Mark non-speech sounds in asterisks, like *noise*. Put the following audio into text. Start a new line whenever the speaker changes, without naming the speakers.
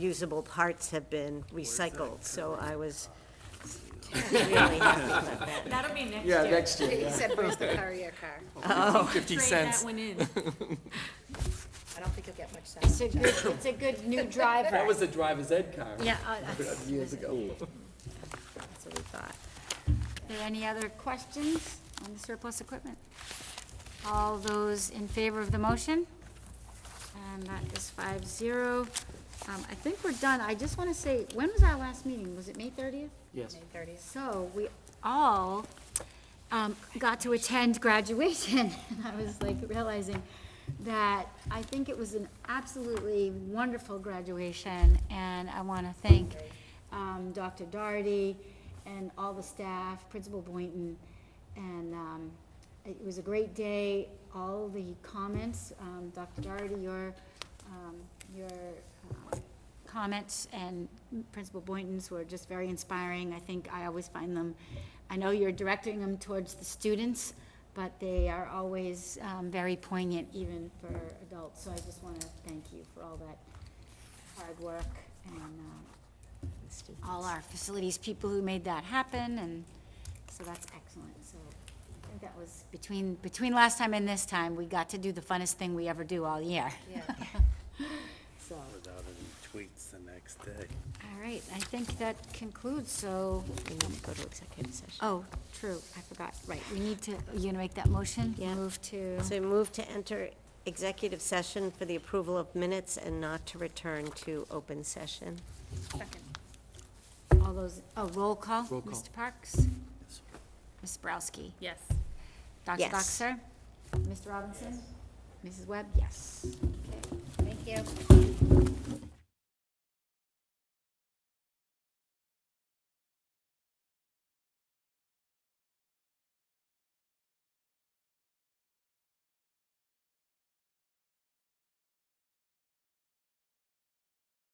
usable parts have been recycled, so I was really happy about that.
That'll be next
Yeah,
year.
next year,
He
yeah.
said, where's the courier car?
fifty
Trade
cents.
that one in.
I don't think you'll get much
It's
sound.
a good, it's a good new driver.
That was the driver's ed car
Yeah, uh, that's
years ago.
that's what we thought. Are there any other questions on the surplus equipment? All those in favor of the motion? And that is five zero. Um, I think we're done. I just want to say, when was our last meeting? Was it May thirtieth?
Yes.
So we all um, got to attend graduation. *laughs* And I was like realizing that I think it was an absolutely wonderful graduation. And I want to thank um, Dr. Doherty and all the staff, Principal Boynton. And um, it was a great day. All the comments, um, Dr. Doherty, your, um, your uh, comments and Principal Boynton's were just very inspiring. I think I always find them, I know you're directing them towards the students, but they are always um, very poignant even for adults. So I just want to thank you for all that hard work and uh, all our facilities people who made that happen, and so that's excellent. So I think that was between, between last time and this time, we got to do the funnest thing we ever do all year.
Yeah.
*laughs* So, all
Without any tweets the next day.
right, I think that concludes, so
We need to go to executive session.
Oh, true, I forgot, right, we need to, you gonna make that motion?
Yeah.
Move to,
So move to enter executive session for the approval of minutes and not to return to open session.
all those, oh, roll call?
Roll call.
Mr. Parks? Ms. Sprowski?
Yes.
Dr.
Yes.
Doxer? Mr. Robinson? Mrs. Webb, yes.
Thank you.